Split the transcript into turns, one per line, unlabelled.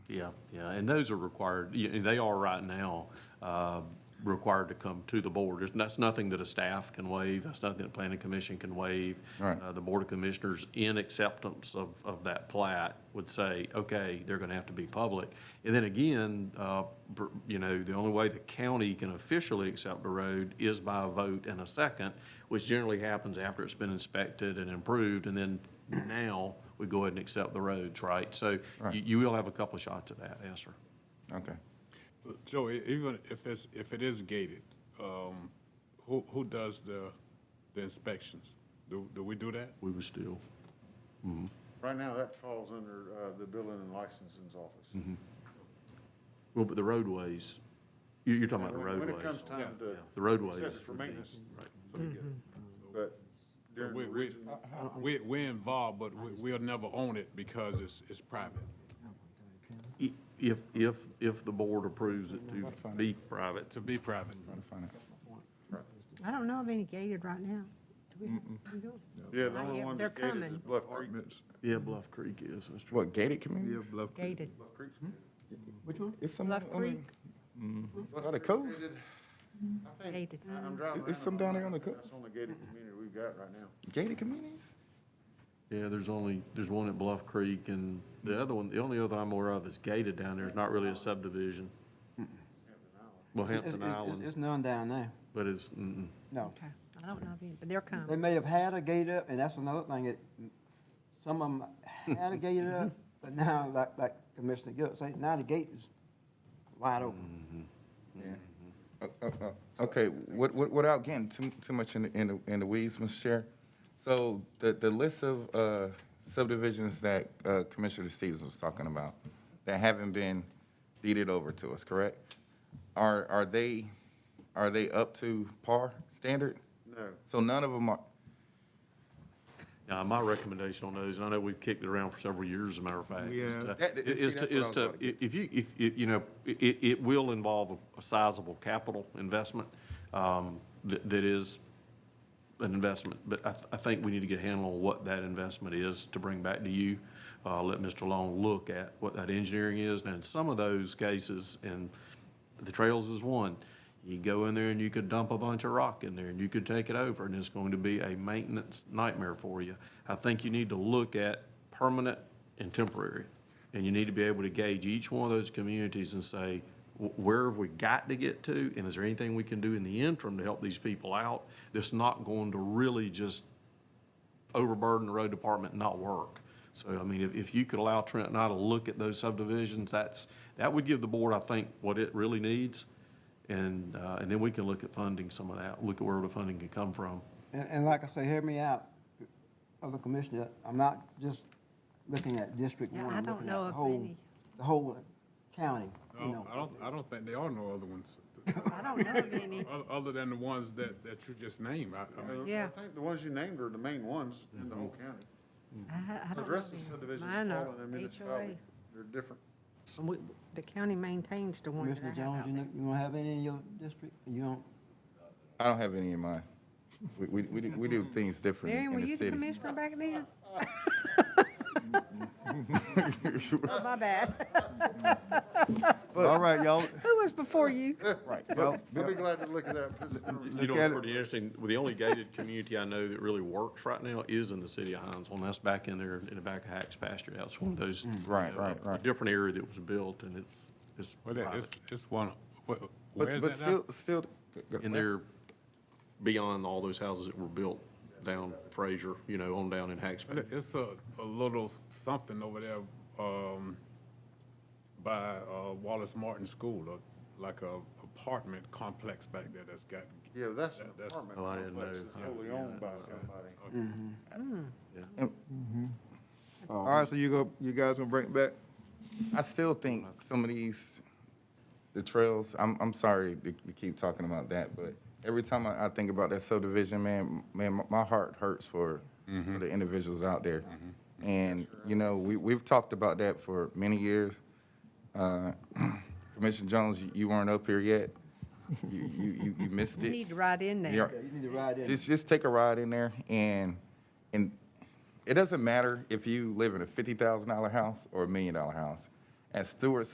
Yeah, yeah, and those are required, y- and they are right now, uh, required to come to the board. There's, that's nothing that a staff can waive, that's nothing that planning commission can waive.
Right.
Uh, The Board of Commissioners, in acceptance of, of that plat, would say, okay, they're gonna have to be public. And then again, uh, br- you know, the only way the county can officially accept a road is by a vote and a second, which generally happens after it's been inspected and improved, and then now we go ahead and accept the roads, right? So you, you will have a couple of shots at that, yes, sir.
Okay.
So Joe, e- even if it's, if it is gated, um, who, who does the, the inspections? Do, do we do that?
We would still,
Right now, that falls under uh, the building and licensing's office.
well, but the roadways, you, you're talking about the
When- When it
roadways.
comes time to.
The roadways
accept it for
would be-
maintenance, Mm-hmm.
Right.
but
So
during
we,
the
we,
region,
we, we're involved, but we, we'll never own it because it's, it's private.
I- If, if, if the board approves it to be private,
To be private.
Gotta find out.
I don't know of any gated right now. Do we- we don't?
yeah, the
Not
only
yet.
one
They're
that's gated is
coming.
Bluff Creek.
yeah, Bluff Creek is, that's true.
What, gated communities?
Gated.
Bluff Creek's
Which one? It's some, mm-hmm.
Bluff
on the-
Creek,
it's on the coast.
gated. I think,
gated.
I- I'm driving
Is- is
around
some
on
down
that.
there on the
That's
coast?
on the gated community we've got right now.
Gated communities?
Yeah, there's only, there's one at Bluff Creek, and the other one, the only other I'm aware of is gated down there, it's not really a subdivision. Well,
It's-
Hampton
it's- it's-
Island,
It's none down there,
but it's, mm-mm.
no.
Okay, I don't know of any, but they're
They
coming.
may have had a gate up, and that's another thing, that some of them had a gate up, but now, like, like Commissioner Gill said, now the gate is wide open.
Uh, uh, uh, Okay, what, what, without getting too, too much in, the- in, the- in the weeds, Mr. Chair, so the, the list of, uh, subdivisions that, uh, Commissioner Stevens was talking about, that haven't been deeded over to us, correct? Are, are they, are they up to par standard?
No.
So none of them are,
Now, my recommendation on those, and I know we've kicked it around for several years, as a matter of fact, is to,
That- that- see,
is
that's
to,
what
is
I was
to,
about to
if you, if, you you know, it, it will involve a sizable capital investment, um, that, that is an investment, but I, th- I think we need to get a handle on what that investment is to bring back to you. Uh, let Mr. Long look at what that engineering is, and in some of those cases, and the trails is one, you go in there and you could dump a bunch of rock in there, and you could take it over, and it's going to be a maintenance nightmare for you. I think you need to look at permanent and temporary, and you need to be able to gauge each one of those communities and say, "Wh- where have we got to get to? And is there anything we can do in the interim to help these people out that's not going to really just overburden the road department and not work? So, I mean, if, if you could allow Trent and I to look at those subdivisions, that's, that would give the board, I think, what it really needs. And, uh, and then we can look at funding some of that, look at where the funding can come from.
And, and like I say, hear me out, other commissioner, I'm not just looking at District
Yeah,
One,
I
I'm
don't
looking
know
at the
of
whole,
any.
the whole county, you
No,
know.
I don't, I don't think there are no other ones,
I don't know of any.
oth- other than the ones that, that you just named. I, I mean,
Yeah.
I think the ones you named are the main ones in the whole county.
I, I
The
don't know
rest of the
of any.
subdivisions
Mine
fall
are
under
HOA.
municipality. They're different.
And we- The county maintains the one that I
Commissioner
have
Jones,
out
you
there.
don't, you don't have any in your district? You don't?
I don't have any in mind. We, we, we do, we do things differently
Mary, were
in
you
the city.
the commissioner back then? Oh, My bad.
All right, y'all,
Who was before you?
right, well,
I'll be glad to look at that. Put some-
You know,
Look at
it's
it.
pretty interesting, the only gated community I know that really works right now is in the city of Hinesville, and that's back in there in the back of Hacks pasture. That's one of those. you
Mm, right,
know,
right,
a
right.
Different area that was built, and it's, it's
well, that-
private.
it's, it's one, wh- where
but,
is
but
that now?
still, still.
And they're beyond all those houses that were built down Fraser, you know, on down in Hacks
Well, It's a, a little something over there, um, by, uh, Wallace Martin School, a- like a apartment complex back there that's got,
Yeah, that's an
That- that's-
apartment
Oh, I didn't
complex
know.
that's wholly owned by somebody.
All right, so you go, you guys gonna bring it back? I still think some of these, the trails, I'm, I'm sorry to to keep talking about that, but every time I, I think about that subdivision, man, man, my- my heart hurts for, for the individuals out there. And, you know, we, we've talked about that for many years. Uh, Commissioner Jones, you- you weren't up here yet. You, you, you- you missed
You
it.
need to write in
You're-
there.
Yeah, you need to ride in.
just just take a ride in there and and it doesn't matter if you live in a fifty thousand dollar house or a million dollar house. At Stewart